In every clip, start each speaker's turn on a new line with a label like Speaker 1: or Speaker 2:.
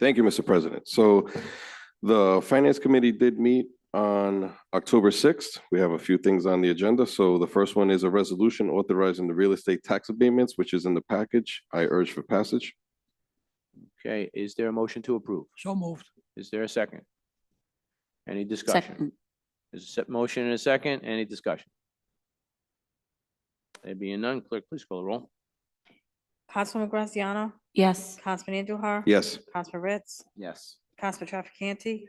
Speaker 1: Thank you, Mr. President. So the Finance Committee did meet on October sixth. We have a few things on the agenda. So the first one is a resolution authorizing the real estate tax abatements, which is in the package. I urge for passage.
Speaker 2: Okay, is there a motion to approve?
Speaker 3: So moved.
Speaker 2: Is there a second? Any discussion?
Speaker 4: Second.
Speaker 2: There's a se- motion and a second, any discussion? There being none, clerk, please call the roll.
Speaker 5: Councilwoman Graziano,
Speaker 4: Yes.
Speaker 5: Councilman Andujar.
Speaker 1: Yes.
Speaker 5: Councilman Ritz,
Speaker 2: Yes.
Speaker 5: Councilman Trafficante.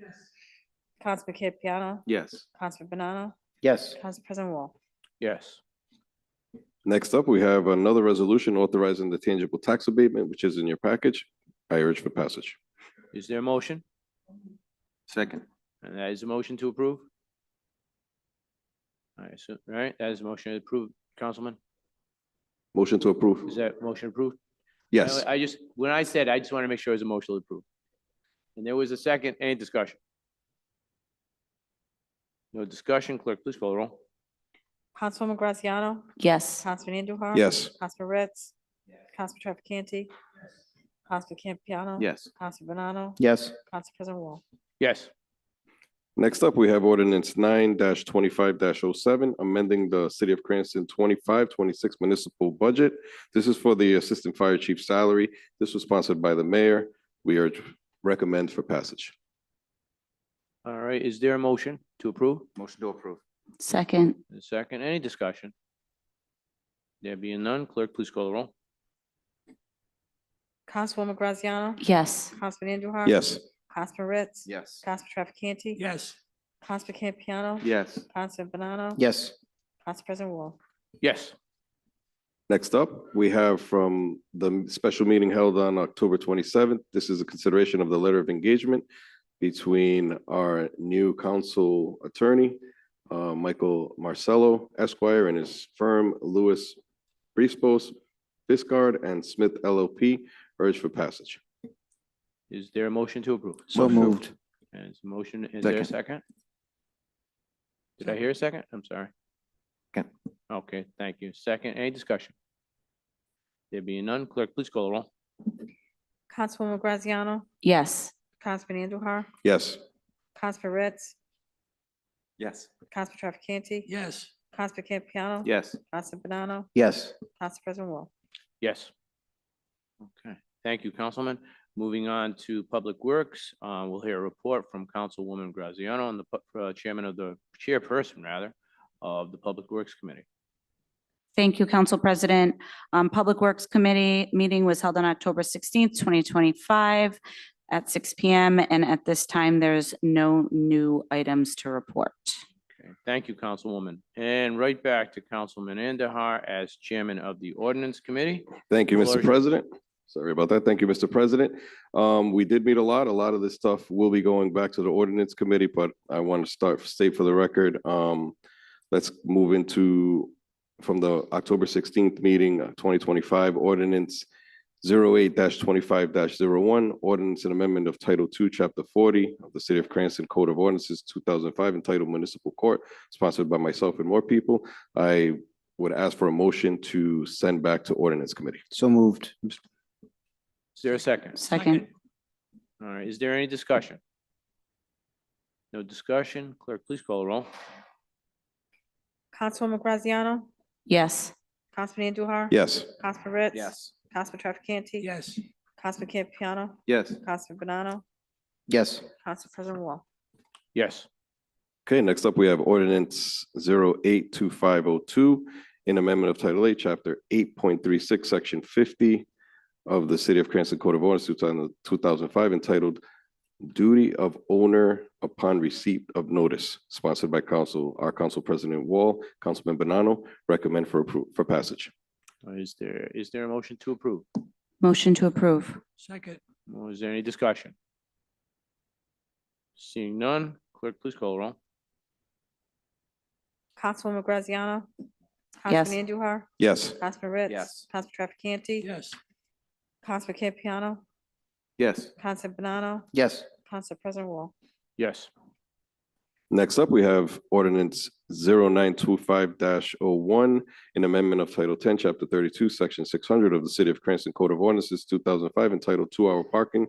Speaker 5: Councilman Campiano,
Speaker 2: Yes.
Speaker 5: Councilman Banano,
Speaker 6: yes,
Speaker 5: Council President Wall.
Speaker 2: Yes.
Speaker 1: Next up, we have another resolution authorizing the tangible tax abatement, which is in your package. I urge for passage.
Speaker 2: Is there a motion?
Speaker 7: Second.
Speaker 2: And that is a motion to approve? All right, so, all right, that is a motion to approve, Councilman?
Speaker 1: Motion to approve.
Speaker 2: Is that motion approved? No,
Speaker 1: Yes.
Speaker 2: I just, when I said, I just want to make sure it was a motion to approve. And there was a second, any discussion? No discussion, clerk, please call the roll.
Speaker 5: Councilwoman Graziano,
Speaker 4: Yes.
Speaker 5: Councilman Andujar.
Speaker 1: Yes.
Speaker 5: Councilman Ritz, Councilman Trafficante. Councilman Campiano.
Speaker 7: Yes.
Speaker 5: Councilman Banano,
Speaker 6: yes,
Speaker 5: Council President Wall.
Speaker 2: Yes.
Speaker 1: Next up, we have ordinance nine twenty-five 7 amending the city of Cranston 25-26 municipal budget. This is for the assistant fire chief salary. This was sponsored by the mayor. We urge recommend for passage.
Speaker 2: All right, is there a motion to approve?
Speaker 7: Motion to approve.
Speaker 4: Second.
Speaker 2: A second, any discussion? There being none, clerk, please call the roll.
Speaker 5: Councilwoman Graziano,
Speaker 4: Yes.
Speaker 5: Councilman Andujar.
Speaker 1: Yes.
Speaker 5: Councilman Ritz.
Speaker 7: Yes.
Speaker 5: Councilman Trafficante.
Speaker 3: Yes,
Speaker 5: Councilman Campiano.
Speaker 7: Yes.
Speaker 5: Councilman Banano.
Speaker 6: yes,
Speaker 5: Council President Wall.
Speaker 2: Yes.
Speaker 1: Next up, we have from the special meeting held on October twenty-seventh. This is a consideration of the letter of engagement between our new council attorney, uh, Michael Marcello Esquire and his firm Lewis Briespos Discard and Smith LLP. Urge for passage.
Speaker 2: Is there a motion to approve?
Speaker 6: so
Speaker 7: Motion to
Speaker 6: moved,
Speaker 2: And it's a motion, is there a second? Did I hear a second? I'm sorry.
Speaker 7: Second.
Speaker 2: Okay, thank you. Second, any discussion? There being none, clerk, please call the roll.
Speaker 5: Councilwoman Graziano,
Speaker 4: Yes.
Speaker 5: Councilman Andujar,
Speaker 1: Yes.
Speaker 5: Councilman Ritz,
Speaker 7: Yes.
Speaker 5: Councilman Trafficante.
Speaker 3: yes,
Speaker 5: Councilman Campiano.
Speaker 7: Yes.
Speaker 5: Councilman Banano,
Speaker 6: yes,
Speaker 5: Council President Wall.
Speaker 2: Yes. Okay, thank you, Councilman. Moving on to Public Works, uh, we'll hear a report from Councilwoman Graziano and the pu- uh, chairman of the, chairperson rather, of the Public Works Committee.
Speaker 4: Thank you, Council President. Um, Public Works Committee meeting was held on October sixteenth, twenty twenty-five at six P M. And at this time, there's no new items to report.
Speaker 2: Okay, Thank you, Councilwoman. And right back to Councilman Andahar as chairman of the Ordinance Committee.
Speaker 1: Thank you,
Speaker 2: Floor
Speaker 1: Mr.
Speaker 2: is yours.
Speaker 1: President. Sorry about that. Thank you, Mr. President. Um, we did meet a lot. A lot of this stuff will be going back to the ordinance committee, but I want to start, state for the record, um, let's move into from the October sixteenth meeting, uh, twenty twenty-five ordinance 8 twenty-five one ordinance and amendment of Title Two, Chapter forty of the City of Cranston Code of Ordinances, two thousand five, entitled Municipal Court, sponsored by myself and more people. I would ask for a motion to send back to ordinance committee.
Speaker 6: so moved,
Speaker 2: Is there a second?
Speaker 4: Second.
Speaker 2: All right, is there any discussion? No discussion? Clerk, please call the roll.
Speaker 5: Councilwoman Graziano,
Speaker 4: Yes.
Speaker 5: Councilman Andujar.
Speaker 1: Yes.
Speaker 5: Councilman Ritz.
Speaker 7: Yes.
Speaker 5: Councilman Trafficante.
Speaker 3: yes,
Speaker 5: Councilman Campiano,
Speaker 7: Yes.
Speaker 5: Councilman Banano,
Speaker 6: yes,
Speaker 5: Council President Wall.
Speaker 2: Yes.
Speaker 1: Okay, next up, we have ordinance zero eight two five oh two, an amendment of Title Eight, Chapter eight point three six, Section fifty of the City of Cranston Code of Ordinance, two thousand five, entitled Duty of Owner Upon Receipt of Notice, sponsored by Council, our Council President Wall, Councilman Banano, recommend for approval, for passage.
Speaker 2: Uh, Is there, is there a motion to approve?
Speaker 4: Motion to approve.
Speaker 3: second,
Speaker 2: Well, Is there any discussion? Seeing none, clerk, please call the roll.
Speaker 5: Councilwoman Graziano.
Speaker 4: Yes.
Speaker 5: Councilman Andujar,
Speaker 1: Yes.
Speaker 5: Councilman Ritz.
Speaker 7: Yes.
Speaker 5: Councilman Trafficante.
Speaker 3: yes,
Speaker 5: Councilman Campiano,
Speaker 7: Yes.
Speaker 5: Councilman Banano,
Speaker 6: yes,
Speaker 5: Council President Wall.
Speaker 2: Yes.
Speaker 1: Next up, we have ordinance 925-01, an amendment of Title ten, Chapter thirty-two, Section six hundred of the City of Cranston Code of Ordinances, two thousand five, entitled Two Hour Parking